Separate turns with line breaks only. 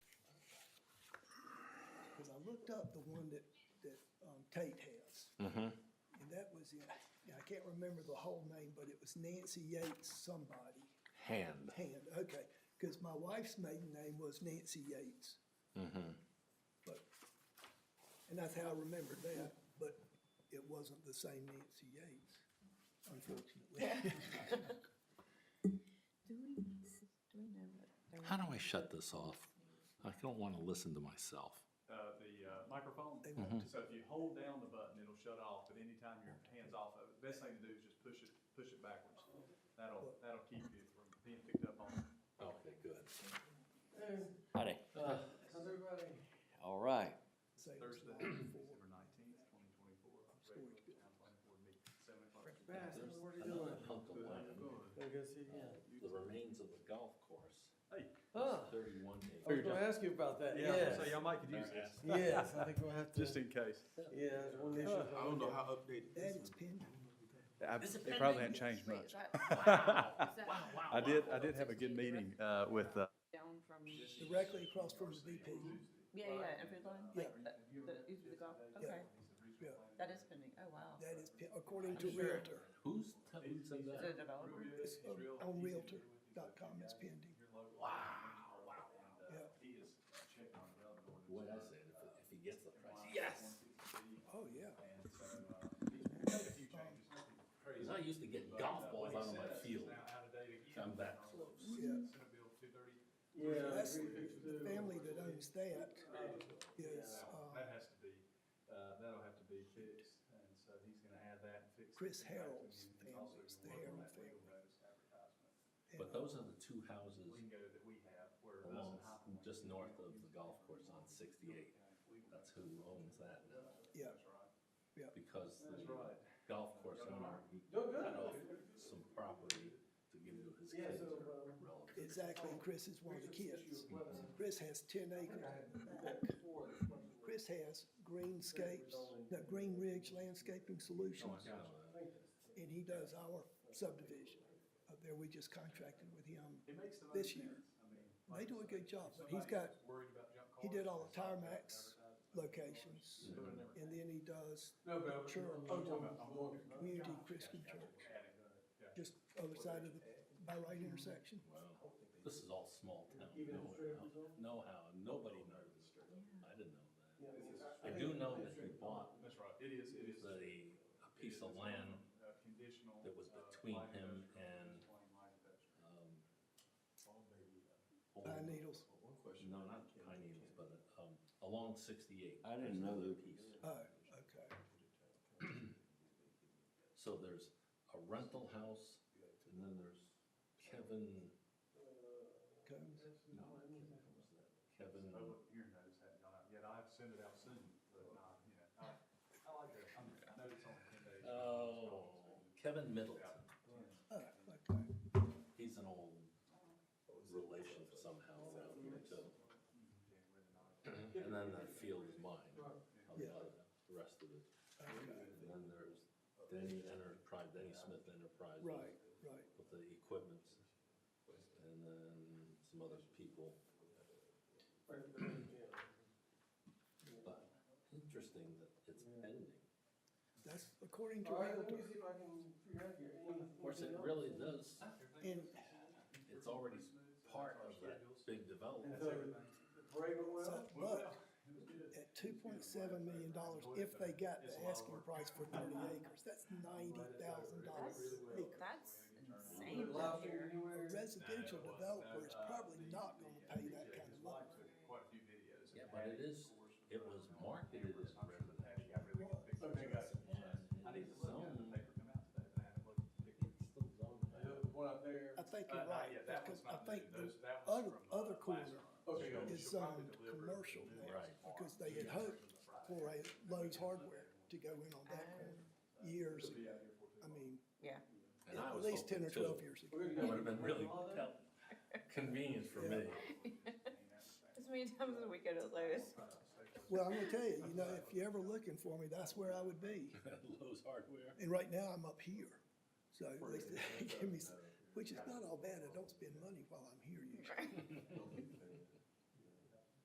looked up the one that, that um, Tate has. And that was in, yeah, I can't remember the whole name, but it was Nancy Yates somebody.
Hand.
Hand, okay, because my wife's maiden name was Nancy Yates. But, and that's how I remembered that, but it wasn't the same Nancy Yates, unfortunately.
Do we, do we know what? they're-
How do I shut this off? I don't want to listen to myself.
uh, the uh, microphone.
They want
So if you hold down the button, it'll shut off, but anytime your hand's off of it, best thing to do is just push it, push it backwards. That'll, that'll keep you from being picked up on.
Okay, good.
Howdy. All right.
Say it was
Thursday,
like
December nineteenth, twenty twenty-four. Regular town planning board meeting, seven o'clock.
what are you doing?
Good, how you doing?
Gotta go see again.
The remains of the golf course.
Hey,
Ah,
Thirty-one days.
I was gonna ask you about that,
yeah, so
yes.
y'all might could use this,
Yes, I think we'll have
just
to,
in case.
yeah, there's one issue.
I don't know how updated
That
this
is
is.
pending.
It probably hadn't changed
Wait, is
much.
that- wow, is that
I did, I did have a good meeting uh, with, uh,
Down from, yeah,
Directly across from the VP.
yeah, every line, like,
Yeah.
that- the, is the golf, okay,
Yeah,
that is pending, oh, wow.
that is, pe- according to Realtor,
Who's, who said
Is it a
that?
developer?
it's on on Realtor.com, it's pending.
Wow, wow.
Yeah,
he is checking on the other one.
The way I said it, if, if he gets the price, yes!
oh, yeah.
And so, uh, he's made a few changes, nothing crazy.
Because I used to get golf balls out of my field. I'm that close.
Yeah.
Yeah.
That's,
I agree with you,
the
too.
family that owns that is,
That
uh,
has to be, uh, that'll have to be fixed, and so he's gonna add that and fix. it.
Chris Harrell's family, it's the
Work
Harrell
on that legal
family.
notice advertisement
But those are the two houses
Lingo that we have, where. us
along,
and High Point-
just north of the golf course on sixty-eight. That's who owns that now,
yeah,
because
That's
the
right.
golf course owner, he
Doing good.
cut off some property to give to his
Yeah,
kids
so,
or
um,
relatives.
exactly, and Chris is one of the kids. Chris has ten acres, Chris has Greenscapes, no, Green Ridge Landscaping Solutions,
um,
and he does our subdivision. Up there, we just contracted with him,
It makes the most
This year.
sense. I mean,
they
like
do a
you
good
said,
job,
if
but he's
somebody
got,
is worried about junk
he
cars,
did all the
it's not gonna
Tarmax
advertise.
locations,
Doing everything.
and then he does
No, but I was-
Sure.
I was talking about the mortgage.
Community Christian Church, just other side of the, by right intersection.
Wow, uh, this is all small town,
Even if
nowhere,
straight up is on?
know-how, nobody knows. I didn't know that.
Yeah, it's-
I do know that he bought
That's right, it is, it is. it
the, a piece
is,
of
it's
land,
on, uh, Conditional.
that was
uh,
between
light
him
industrial,
and-
it's plain light industrial.
um.
uh,
Pine Needles,
One question.
No, not Pine Needles, but, um, along sixty-eight.
I didn't know
There's
that.
another piece.
oh, okay,
So there's a rental house, and then there's Kevin,
Combs.
no, not Kevin, who's that? Kevin,
Oh, look, your notes haven't gone out yet, I have to send it out soon, but not, you know, I, I like that, I'm- I know it's only ten days.
oh, Kevin Middleton.
oh, okay.
He's an old relation somehow around here too. And then that field is mine, on the other, the rest of it. And then there's Denny Enterprise, Denny Smith Enterprises.
Right, right.
With the equipment, and then some other people. But interesting that it's pending.
That's according to
All right, let me
Realtor.
see if I can figure out here.
Of course, it really does,
And
it's already part of that big
And
development.
so, Braven
so,
well,
but at two point seven million dollars, if they got the asking price for thirty acres, that's ninety
uh,
thousand dollars acre.
That's insane
good
up
lobster
A
here.
anywhere.
residential developer
uh,
is probably not gonna pay that kind of money.
Quite a few videos.
Yeah, but it is, it was marketed as residential.
Okay, guys.
I
And
need
it's
to look at the
zoned,
paper come out today, but I haven't looked at the picture.
it's still zoned.
The one up there.
I think
Uh,
you're
not
right,
yet. That one's
because I
not new.
think the
Those- that one's
other,
from, uh,
other
last
corner
summer.
Okay, go.
is zoned commercial now,
Right.
because they had hoped for a Lowe's Hardware to go in
Oh.
on that corner years ago. I mean,
Yeah,
And I
at
was
least ten or
hoping,
twelve
too.
years ago.
We're
That
gonna
would have been really
All that?
tel- convenient for me.
as many times as we go to Lowe's.
Well, I'm gonna tell you, you know, if you're ever looking for me, that's where I would be.
Lowe's Hardware.
And right now, I'm up here. So at least they give me, s- which is not all bad. I don't spend money while I'm here usually.